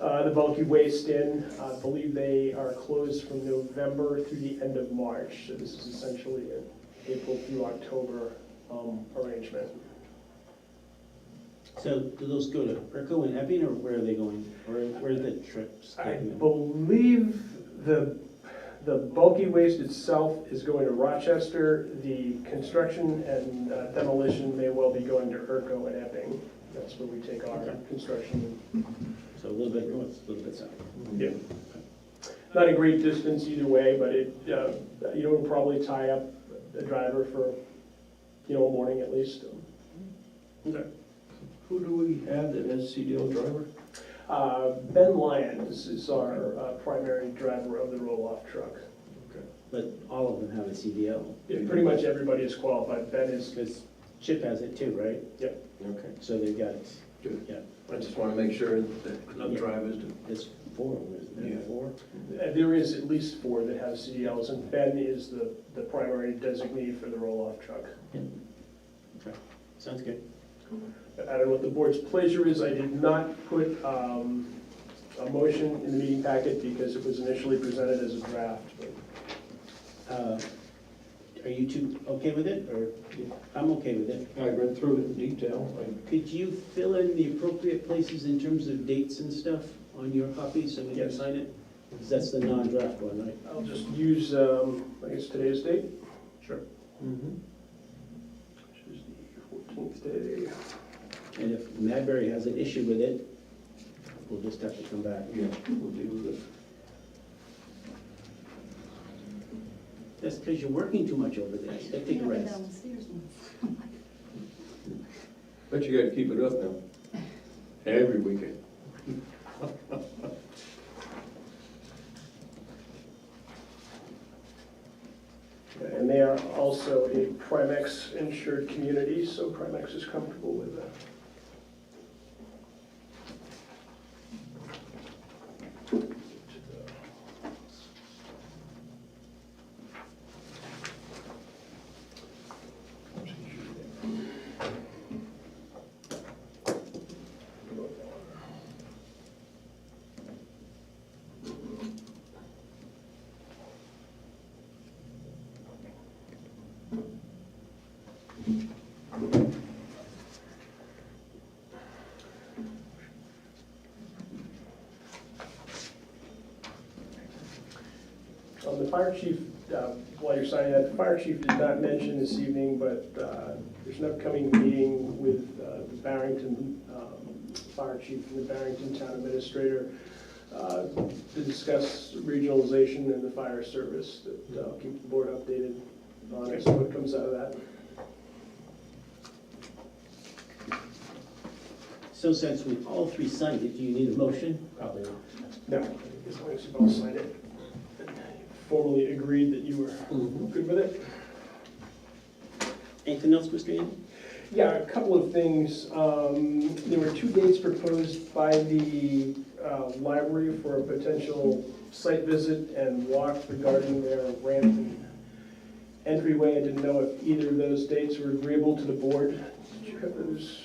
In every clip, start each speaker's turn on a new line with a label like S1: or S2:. S1: uh, the bulky waste in. I believe they are closed from November through the end of March, so this is essentially an April through October um, arrangement.
S2: So do those go to Urco and Epping, or where are they going? Where, where are the trips
S1: I
S2: taking them?
S1: believe the, the bulky waste itself is going to Rochester. The construction and uh, demolition may well be going to Urco and Epping. That's where we take our
S2: Okay.
S1: construction.
S2: So a little bit north, a little bit south.
S1: Yeah. Not a great distance either way, but it, uh, you know, it'll probably tie up the driver for, you know, a morning at least.
S3: Who do we have that has CDL driver?
S1: Uh, Ben Lyons is our uh, primary driver of the roll-off truck.
S2: But all of them have a CDL,
S1: Yeah, Pretty much everybody is qualified. Ben is
S2: because Chip has it too, right?
S3: Okay.
S2: So they've got,
S3: I just want to make sure that no
S2: Yeah.
S3: drivers do.
S2: it's four, isn't
S3: Yeah.
S2: it, four?
S1: Uh, There is at least four that have CDLs, and Ben is the, the primary designee for the roll-off truck.
S2: Sounds good.
S1: I don't know what the board's pleasure is, I did not put um, a motion in the meeting packet because it was initially presented as a draft, but
S2: Uh, Are you two okay with it, or, I'm okay with it.
S3: I read through it in detail. I-
S2: Could you fill in the appropriate places in terms of dates and stuff on your copy, so we can
S1: Yes.
S2: sign it? Because that's the non-draft one, right?
S1: I'll just use, um, I guess, today's date? Sure.
S3: Mm-hmm.
S1: Which is the 14th day.
S2: And if Madberry has an issue with it, we'll just have to come back.
S3: Yeah, we'll deal with it.
S2: That's because you're working too much over there. Take a rest.
S3: But you gotta keep it up now. Every weekend.
S1: And they are also a Primex insured community, so Primex is comfortable with that. Um, The fire chief, uh, while you're signing that, the fire chief did not mention this evening, but uh, there's an upcoming meeting with uh, the Barrington um, Fire Chief and the Barrington Town Administrator uh, to discuss regionalization in the fire service. That uh, I'll keep the board updated on as to what comes out of that.
S2: So since we all three signed it, do you need a motion? Probably not.
S1: No, as long as you both signed it. Formally agreed that you were
S3: Mm-hmm.
S1: good with it?
S2: Anything else, Mr. Yan?
S1: Yeah, a couple of things. Um, There were two dates proposed by the uh, library for a potential site visit and walk regarding their ramp and entryway. I didn't know if either of those dates were agreeable to the board. Did you have those?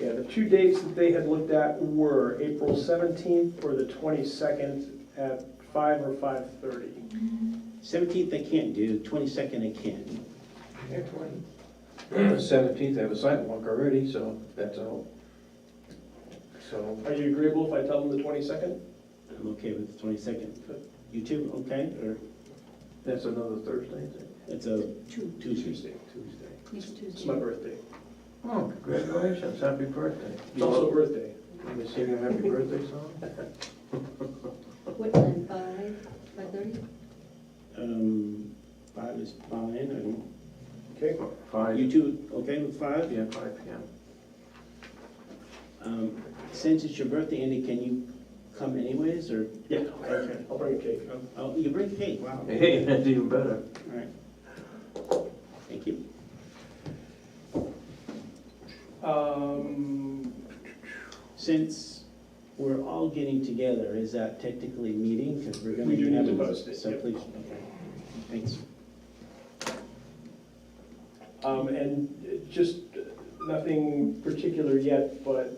S1: Yeah, the two dates that they had looked at were April 17th or the 22nd at five or 5:30.
S2: Seventeenth I can't do, twenty-second I can.
S3: Seventeenth, I have a sidewalk already, so that's all. So,
S1: Are you agreeable if I tell them the 22nd?
S2: I'm okay with the twenty-second. You two, okay? Or
S3: that's another Thursday, is it?
S2: it's a
S4: Two,
S2: Tuesday?
S1: Tuesday.
S3: Tuesday.
S4: next
S1: It's my
S4: Tuesday.
S1: birthday.
S3: Oh, congratulations, happy birthday.
S1: It's also birthday.
S3: Let me sing a happy birthday song?
S4: What time, five, five thirty?
S2: Um, five is fine.
S1: Okay,
S2: I-
S3: Five,
S2: You two, okay with five?
S3: yeah, five P M.
S2: Um, since it's your birthday, Andy, can you come anyways, or?
S1: Yeah.
S2: Okay.
S1: I'll bring a cake.
S2: Oh, you bring cake, wow.
S3: Hey, that's even better.
S2: All right. Thank you.
S1: Um,
S2: Since we're all getting together, is that technically meeting? Because we're gonna.
S1: We do
S2: be
S1: need to
S2: having-
S1: post it,
S2: So
S1: yep.
S2: please, okay, thanks.
S1: um, and just nothing particular yet, but um,